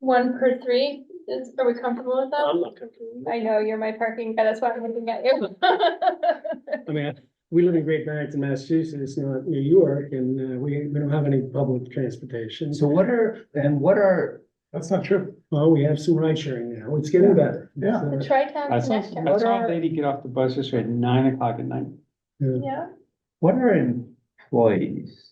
One per three, is, are we comfortable with that? I'm not comfortable with I know, you're my parking guy, that's why I'm looking at you. it. I mean, I- we live in Great Barrington, Massachusetts, not New York, and uh, we, we don't have any public transportation. So what are, and what are, That's not true. Well, we have some ride sharing now. It's getting better. Yeah. The It's, uh, tri-town I saw, I connector, saw a lady get off the bus yesterday at nine o'clock at night. yeah. yeah, what are employees?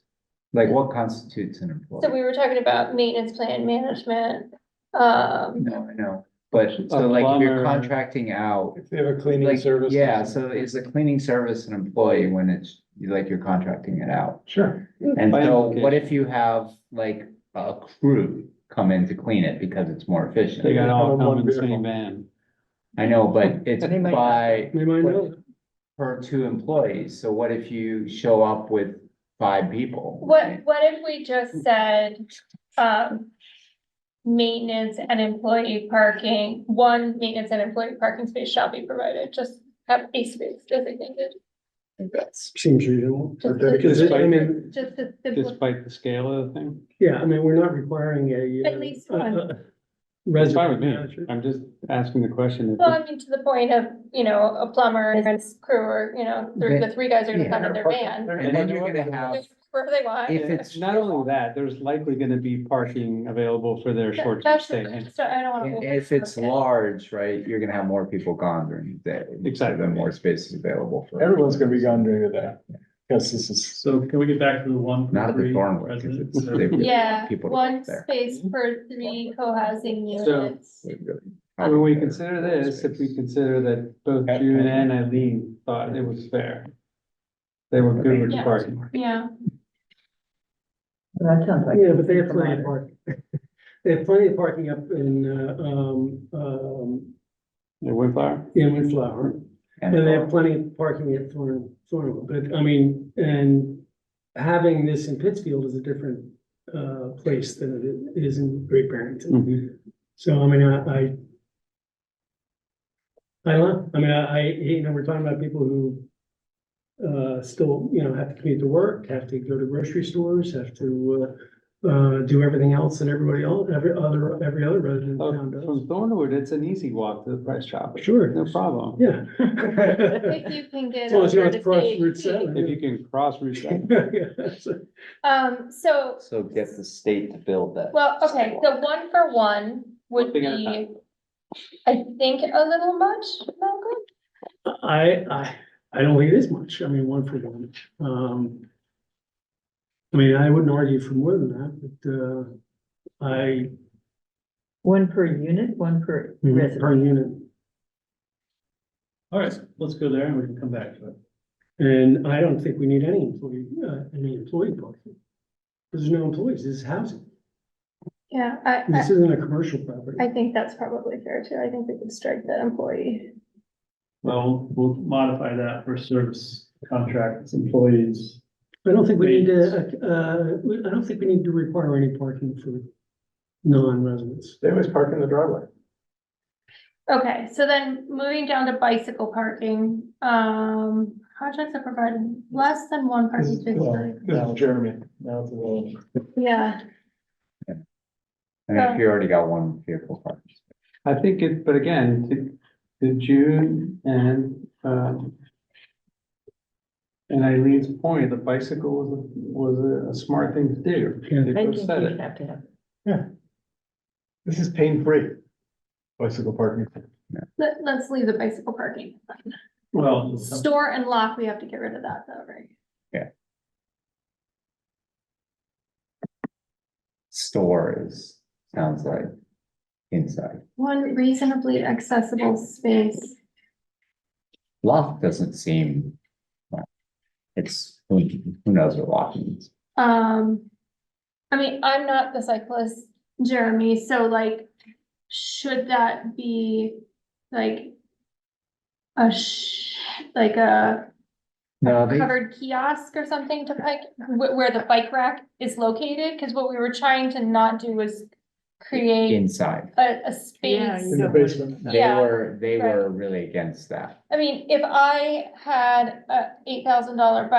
Like what constitutes an employee? so we were talking about maintenance plan management, um, No, I know, but so like if plumber. you're contracting out, If they have a cleaning like, service. yeah, so is the cleaning service an employee when it's, like you're contracting it out? Sure. And By so what implication. if you have like a crew come in to clean it because it's more They efficient? got all Have come one in the same vehicle. van. I know, but it's They might- by They might know. per two employees, so what if you show up with five people? what, what if we just said, um. Maintenance and employee parking, one maintenance and employee parking space shall be provided, just have a space designated. That's. Seems reasonable. just Okay, to- Because it- I mean, Just to simplify, Despite the scale of the thing, yeah, I mean, we're not requiring a. uh, At least a- one. a that's fine resident with me, manager. I'm just asking the question. well, I mean, to the point of, you know, a plumber and his crew or, you know, the, the three guys are gonna Yeah. come in their van. And then you're gonna have, Wherever they want. if it's, Not only that, there's likely gonna be parking available for their short term That's, stay. I just don't- I don't wanna. overcook if it's it. large, right, you're gonna have more people gone during the day. Exactly. Then more space is available for. Everyone's gonna be gone during the day. Cause this is, So can we get back to the one? Not at the three Thornwood, because residents? it's. uh, they really- Yeah, people to one there. space per three co-housing So- units. they really- When we consider this, if we consider that both At- June and Eileen thought it was fair. They were good with the Yeah. parking. Yeah, That sounds like. Yeah, but they have plenty of parking. They have plenty of parking up in, uh, um, um, The Windflower, in Windflower. And they have plenty of parking at Thorn, Thornwood, but I mean, and having this in Pittsfield is a different uh place than it is in Great Barrington. Mm-hmm. So I mean, I I I don't, know. I mean, I, I, you know, we're talking about people who uh still, you know, have to commute to work, have to go to grocery stores, have to uh uh do everything else that everybody else, every other, every other resident Oh, in town does. from Thornwood, it's an easy walk to the Price Chopper. Sure. No problem, Yeah. if you can get. As long as you don't have to over cross the Route CHP. seven. if you can cross Route seven. Yeah, so- Um, so, So get the state to build that. well, okay, so one for one would One thing at a be, time. I think, a little much, Malcolm? I, I, I don't think it is much, I mean, one for one, um. I mean, I wouldn't argue for more than that, but, uh, I, One per unit, one per per resident. unit, All right, let's go there and we can come back to it. and I don't think we need any employee, uh, any employee parking. 'Cause There's no employees, this is housing, Yeah, I, this isn't a commercial property. I think that's probably fair too. I think we could strike the employee. Well, we'll modify that for service contracts, employees. I don't think we need to, uh, we- I don't think we need to require any parking for non-residents. they always park in the driveway. Okay, so then moving down to bicycle parking, um, projects that provide less than one parking space. This is Jeremy. Now it's a little. Yeah, And um, if you already got one vehicle parked. I think it, but again, to, to June and, um. And Eileen's point, the bicycle was, a- was a- a smart thing to do. Yeah. They I both think said you it. have to have. This is pain-free. Bicycle parking. let, let's leave the bicycle parking. Well, Store and lock, we have to get rid of that though, right? Store is, sounds like inside. One reasonably accessible space. Loft doesn't seem. well, It's, who who knows what loft means? Um, I mean, I'm not the cyclist, Jeremy, so like, should that be like a sh- like a No, they, covered kiosk or something to bike, wh- where the bike rack is located? Cause what we were trying to not do was create inside. a, a space. In the basement. They Yeah, were, they right. were really against that. I mean, if I had a eight thousand dollar bike